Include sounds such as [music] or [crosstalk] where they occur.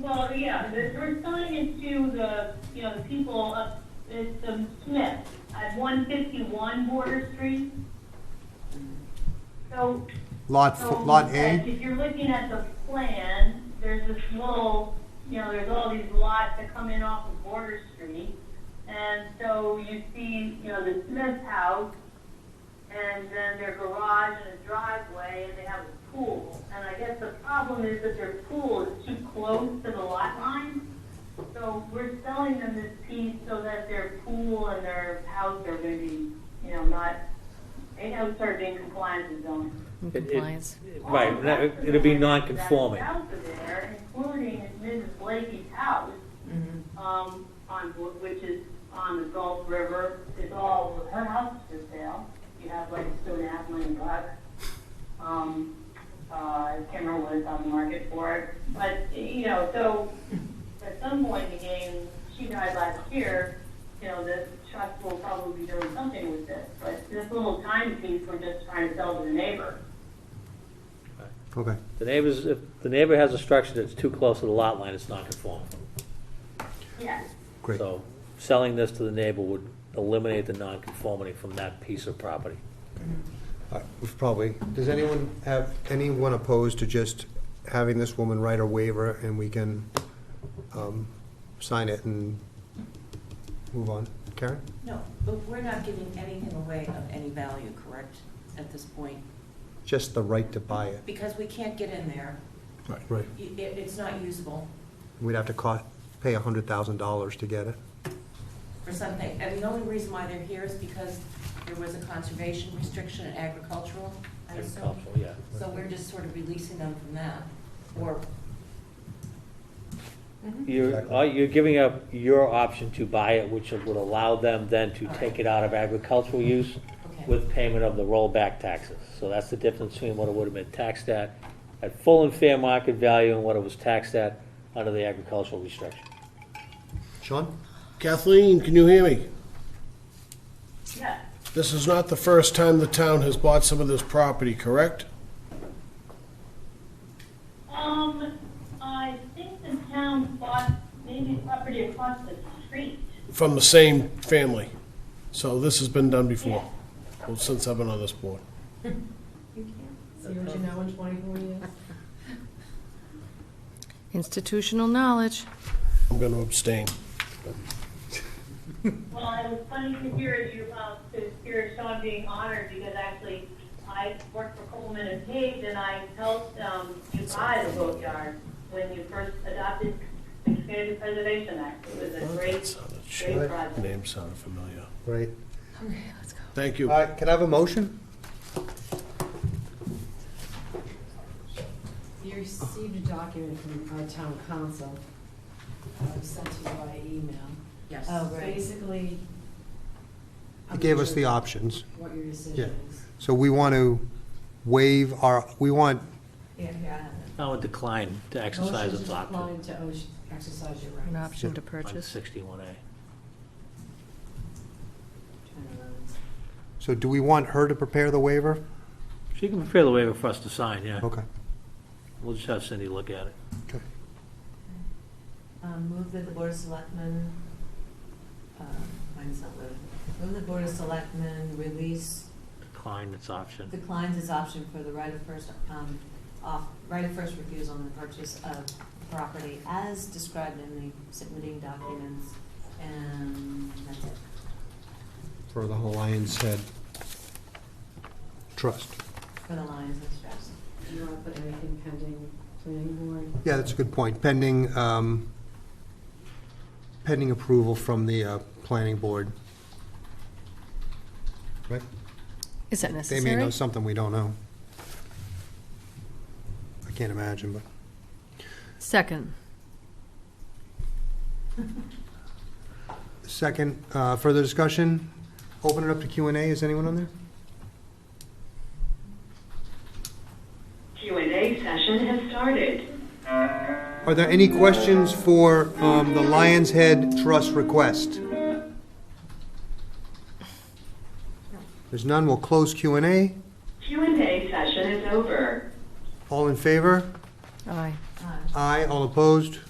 Well, yeah, they're they're selling it to the, you know, the people up, it's the Smith at one fifty-one Border Street. So, Lot, so. f- lot like, A? If you're looking at the plan, there's this little, you know, there's all these lots that come in off of Border Street. And so you see, you know, the Smith house, and then their garage and a driveway, and they have a pool. And I guess the problem is that their pool is too close to the lot line. So we're selling them this piece so that their pool and their house are gonna be, you know, not, they have started being compliant with zoning. in It- it- compliance. Right, no, it- it'll be non-conforming. That's out there, including Mrs. Blakey's house, um, on, Gl- which is on the Gulf River, is all, her house is for sale. You have like two and a half million bucks. Um, uh, Kimmer was on the market for it, but, you know, so at some point in the game, she died last year, you know, the trust will probably be doing something with this, but this little timepiece, we're just trying to sell to the neighbor. Okay. The neighbors, if the neighbor has a structure that's too close to the lot line, it's non-conforming. Yes. Great. So selling this to the neighbor would eliminate the non-conformity from that piece of property. All right, we've Probably. Does anyone have, anyone opposed to just having this woman write a waiver and we can um, sign it and move on? Karen? No, but we're not giving anything away of any value, correct, at this point? Just the right to buy it. Because we can't get in there, Right. I- it, it's not usable We'd have to co- pay $100,000 to get it. for something. And the only reason why they're here is because there was a conservation restriction in agricultural, I assume. Agricultural, yeah. So we're just sort of releasing them from that, or, You're, uh, you're giving up your option to buy it, which would allow them then to take it out of agricultural use okay. with payment of the rollback taxes. So that's the difference between what it would have been taxed at, at full and fair market value, and what it was taxed at under the agricultural restriction. Sean? Kathleen, can you hear me? Yes. This is not the first time the town has bought some of this property, correct? Um, I think the town bought maybe property across the street. From the same family. So this has been done before, well, since I've been on this board. See what you know in 24 years? [laughs] Institutional knowledge. I'm going to abstain. Well, it was funny to hear you, uh, to hear Sean being honored because actually I worked for Coleman and Page and I helped, um, you buy the boatyard when you first adopted the Community Preservation Act. It was a great, great project. Name sounded familiar. Right. Thank All you. right, can I have a motion? You received a document from our town council, uh, sent to you by email. Uh, Yes. Basically. I'm It gave us sure the options. What your decision is. So we want to waive our, we want, Yeah, yeah. I would decline to exercise its option Motion to decline to ocean- exercise your rights. An option to on purchase. sixty-one A. Turnarounds. so do we want her to prepare the waiver? She can prepare the waiver for us to sign, yeah. Okay. We'll just have Cindy look at it. Okay. Um, Move that the Board of Selectmen, uh, mine's not loaded. Move the Board of Selectmen release Decline its option. declines his option for the right of first, um, off, right of first refusal on the purchase of property as described in the submitting documents, and that's it. For the Lion's Head Trust. For the Lions and Straps. Do you want to put anything pending planning board? Yeah, that's a good point. Pending, um, pending approval from the uh, planning board. Right? Is that They may necessary? know something we don't know. I can't imagine, but, Second. second, uh, further discussion? Open it up to Q and A. Is anyone on there? Q and A session has started. Are there any questions for um, the Lion's Head Trust request? There's none, we'll close Q and A. Q and A session is over. All in favor? Aye. Uh, Aye, all opposed?